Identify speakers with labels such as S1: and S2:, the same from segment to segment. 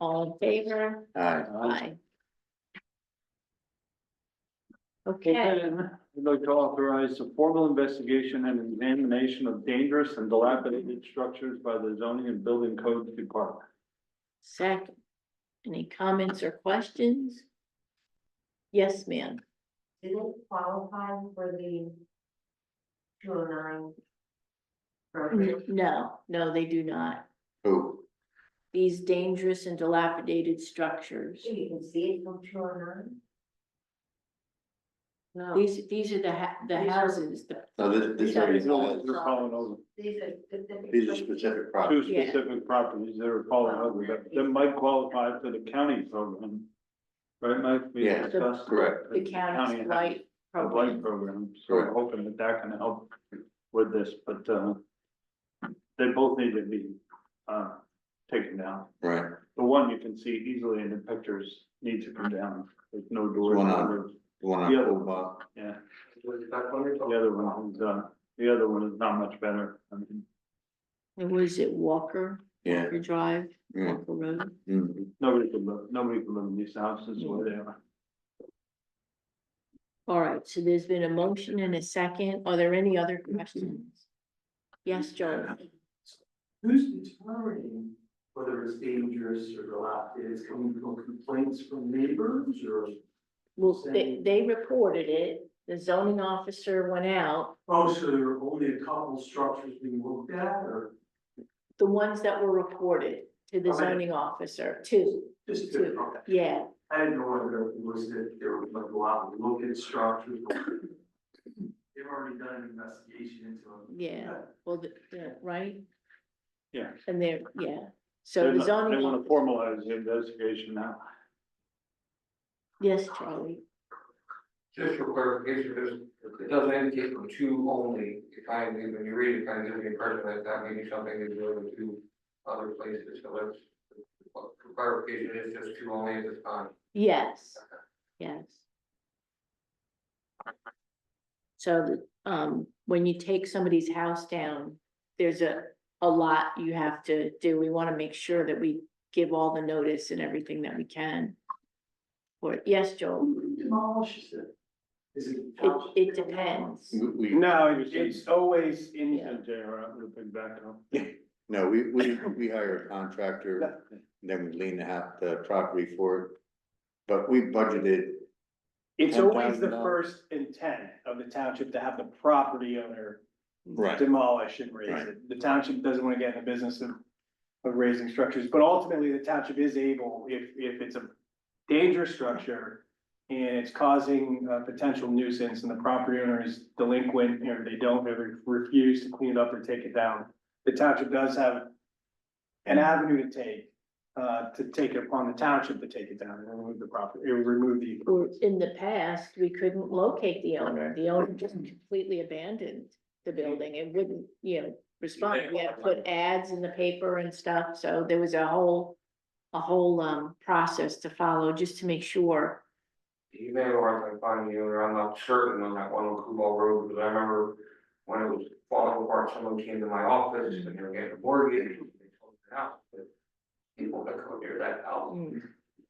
S1: All in favor?
S2: Aye.
S1: Aye. Okay,
S3: Again, I'd like to authorize a formal investigation and examination of dangerous and dilapidated structures by the zoning and building codes department.
S1: second. Any comments or questions? Yes, ma'am.
S4: Did it qualify for the two oh nine? program?
S1: No, no, they do not.
S2: Who?
S1: These dangerous and dilapidated structures.
S2: Mm-hmm.
S4: So you can see it from two oh nine? No,
S1: These, these are the ha- the
S4: These are-
S1: houses, the
S2: No, this, this already has
S3: They're falling over,
S4: these are specific.
S2: these are specific
S3: two
S2: properties.
S1: Yeah. Oh,
S3: specific properties that are falling over, but that might qualify for the county program. Right, Mike? We
S2: Yeah,
S3: discussed
S2: correct.
S1: the county's
S3: has
S1: light
S3: A light
S1: program.
S3: program, so we're
S2: Correct.
S3: hoping that that can help with this, but, uh, they both need to be, uh, taken down.
S2: Right,
S3: The one you can see easily in the pictures needs to come down, there's no doors.
S2: One on- the one on
S3: The other-
S2: Oba,
S3: Yeah. The other one is, uh, the other one is not much better, I mean,
S1: And was it Walker,
S2: yeah.
S1: Walker Drive,
S2: mm,
S1: Walker Road?
S2: mm.
S3: nobody can live, nobody can live in these houses where they are.
S1: All right, so there's been a motion and a second. Are there any other questions? Yes, Joe.
S5: Who's determining whether it's dangerous or dilapidated? It's coming from complaints from neighbors or?
S1: Well, they, they reported it. The zoning officer went out.
S5: Oh, so there are only a couple structures being looked at or
S1: The ones that were reported to the
S5: How many?
S1: zoning officer, two,
S5: just
S1: two,
S5: two? Okay.
S1: yeah.
S5: I didn't know whether it was that there was like a lot of look at structures. or- They've already done an investigation into it.
S1: Yeah. Well, the, the, right?
S3: Yeah.
S1: And they're, yeah. So
S3: They're
S1: the
S3: not- They
S1: zoning,
S3: wanna
S1: officer-
S3: formalize the investigation now.
S1: yes, Charlie.
S6: Just for clarification, because it doesn't indicate for two only, it kind of, when you read it, kind of gives the impression that that may be something that's going to other places, so that's. For clarification, it's just two only at this time.
S1: Yes, yes. So, the- um, when you take somebody's house down, there's a, a lot you have to do. We wanna make sure that we give all the notice and everything that we can. Or, yes, Joel,
S5: Who demolishes it? Is it?
S1: it, it depends.
S2: We, we,
S3: No, it's always in.
S1: Yeah.
S3: J.R., I'm gonna pick back up.
S2: no, we, we, we hire a contractor, then we lean out the property for it. But we budgeted,
S7: It's
S2: And
S7: always the
S2: then, uh,
S7: first intent of the township to have the property owner
S2: right,
S7: demolish and raise
S2: Right.
S7: it. The township doesn't want to get in the business of, of raising structures, but ultimately the township is able, if, if it's a dangerous structure and it's causing a potential nuisance and the property owner is delinquent, or they don't, they refuse to clean it up or take it down, the township does have an avenue to take, uh, to take it upon the township to take it down and remove the property, or remove the
S1: Or in the past, we couldn't locate the owner. The owner just completely abandoned the building and wouldn't, you know, respond. We had to put ads in the paper and stuff, so there was a whole, a whole um process to follow just to make sure.
S6: You may want to find the owner, I'm not certain on that one on Kubal Road, because I remember when it was falling apart, someone came to my office and they were getting a mortgage. and they sold it out, but People that come near that house,
S1: Mm,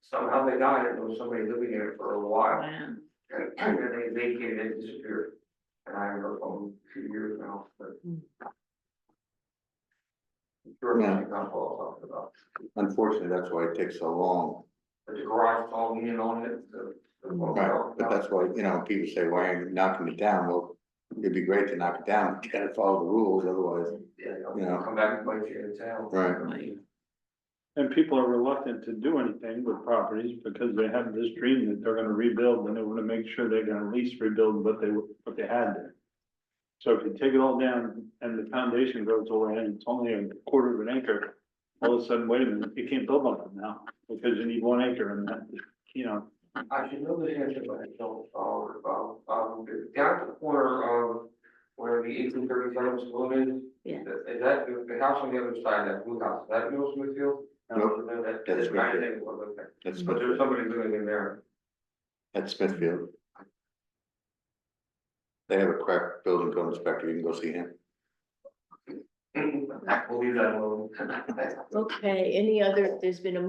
S6: somehow they died, and there was somebody living in it for a while.
S1: wow.
S6: And and then they vacated and disappeared. And I haven't heard from them in two years now, but.
S1: Hmm.
S6: I'm Sure, that's not what I'm talking about.
S2: unfortunately, that's why it takes so long.
S6: But the garage all in on it, the. the-
S2: Right, but that's why, you know, people say, why aren't you knocking it down? Well, it'd be great to knock it down, you gotta follow the rules, otherwise,
S6: Yeah,
S2: Yeah.
S6: they'll come back and bite you in the tail.
S2: Right.
S1: Right.
S3: And people are reluctant to do anything with properties because they have this dream that they're gonna rebuild and they wanna make sure they can at least rebuild what they, what they had there. So if you take it all down and the foundation goes away and it's only a quarter of an acre, all of a sudden, wait a minute, you can't build on it now because you need one acre and that, you know.
S6: I should know this answer, but I don't, uh, about, um, down at the corner of where the eighteen thirty seven school is.
S1: Yeah.
S6: Is that, the the house on the other side, that blue house, is that Middle Smithfield?
S2: Nope.
S6: No, that-
S2: That is
S6: I
S2: Smithfield.
S6: think it was, okay.
S2: that's
S6: But there's
S2: Smithfield,
S6: somebody living in there.
S2: that's Smithfield. They have a crack building code inspector, you can go see him.
S6: We'll leave that alone.
S1: Okay, any other, there's been a